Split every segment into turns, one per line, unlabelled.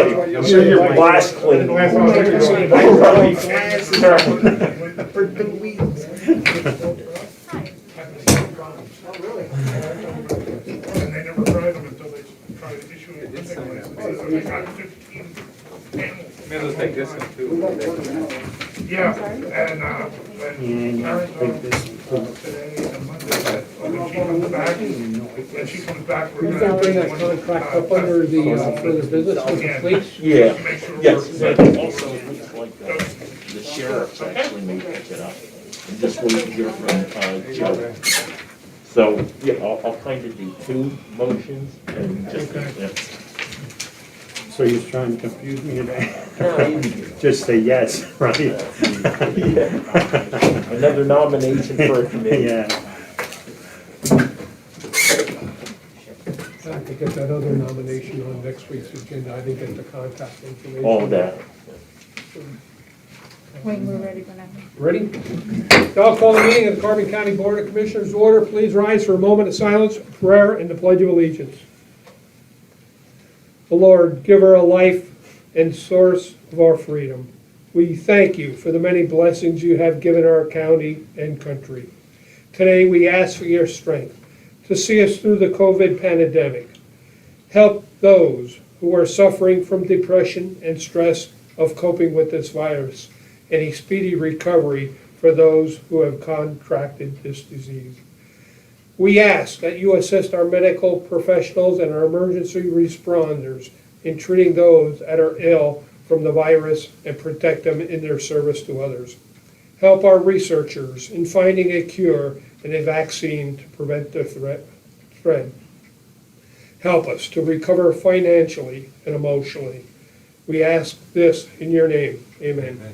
I'm sure your glass clean.
Glass all clean.
For the weeds.
And they never tried them until they tried to issue a limit license. So they got 15 animals.
Maybe let's take this one too.
Yeah, and, uh, when Karen told us today and Monday that, oh, when she comes back, when she comes back, we're
Is
gonna.
that
take
thing that's
one
gonna
of the,
crack
uh,
up under the, uh,
test-
for the business with the police?
Yeah,
Make sure we're.
yes.
ready.
Also, it looks like the the sheriff's actually may pick it up. And this was here from uh, Joe. So, yeah, I'll, I'll kind of do two motions and just, yeah.
So you're trying to confuse me today? Just say yes, right?
another nomination for a committee.
Yeah,
Have to get that other nomination on next week's agenda, I didn't get the contact information.
All that.
When we're ready, whenever.
Ready? Now I'll call the meeting of the Carbon County Board of Commissioners to order. Please rise for a moment of silence, prayer, and the Pledge of Allegiance. The Lord, giver of life and source of our freedom, we thank you for the many blessings you have given our county and country. Today, we ask for your strength to see us through the COVID pandemic. Help those who are suffering from depression and stress of coping with this virus and a speedy recovery for those who have contracted this disease. We ask that you assist our medical professionals and our emergency responders in treating those that are ill from the virus and protect them in their service to others. Help our researchers in finding a cure and a vaccine to prevent the threat, spread. Help us to recover financially and emotionally. We ask this in your name. Amen.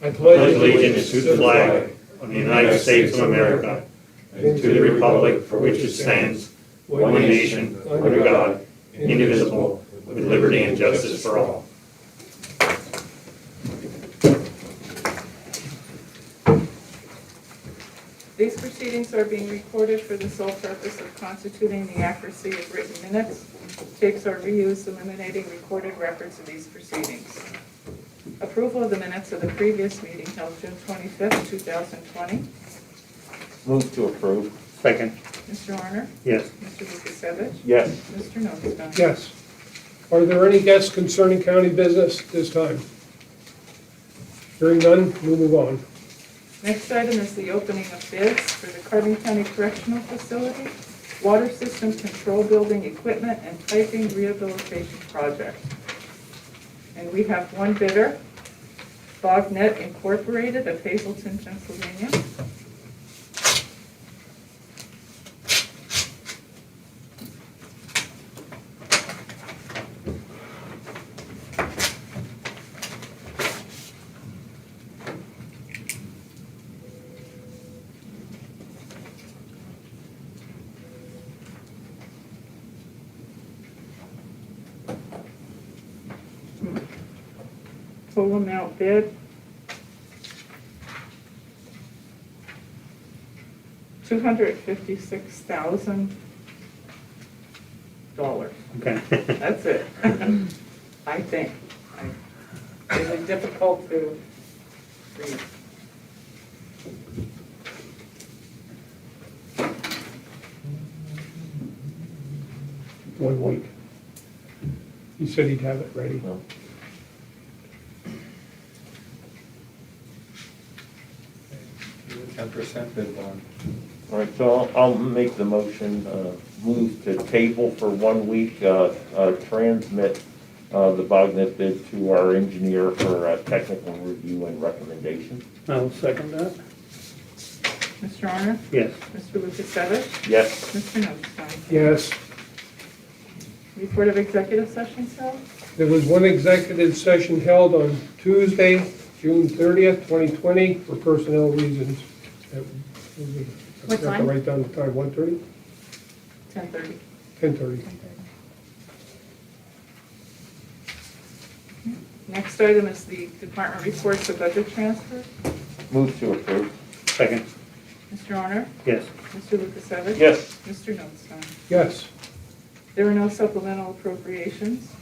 I
pledge allegiance to the flag of the United States of America, and to the republic for which it stands, one nation, under God, indivisible, with liberty and justice for all.
These proceedings are being recorded for the sole purpose of constituting the accuracy of written minutes. Tapes are reused, eliminating recorded records of these proceedings. Approval of the minutes of the previous meeting held June 25th, 2020.
Move to approve.
Second,
Mr. Honor?
yes.
Mr. Lukasevich?
Yes.
Mr. Notstein?
Yes. Are there any guests concerning county business this time? Hearing none, we'll move on.
Next item is the opening of bids for the Carbon County Correctional Facility, Water System Control Building Equipment and Piping Rehabilitation Project. And we have one bidder, Bognet Incorporated of Hazleton, Pennsylvania. Total amount bid. Two hundred fifty-six thousand dollars.
Okay.
That's it. I think. I- It's difficult to read.
One week. He said he'd have it ready.
No.
Ten percent bid bond.
All right, so I'll- I'll make the motion, uh, move to table for one week, uh, uh, transmit uh, the Bognet bid to our engineer for uh, technical review and recommendation.
I'll second that.
Mr. Honor?
Yes.
Mr. Lukasevich?
Yes.
Mr. Notstein?
Yes,
Report of executive session, Sal?
there was one executive session held on Tuesday, June 30th, 2020, for personnel reasons. That was a- I
What
forgot to
time?
Write down the time, 1:30?
Ten thirty.
10:30.
Next item is the department reports of budget transfer.
Move to approve.
Second,
Mr. Honor?
yes.
Mr. Lukasevich?
Yes.
Mr. Notstein?
Yes,
There are no supplemental appropriations.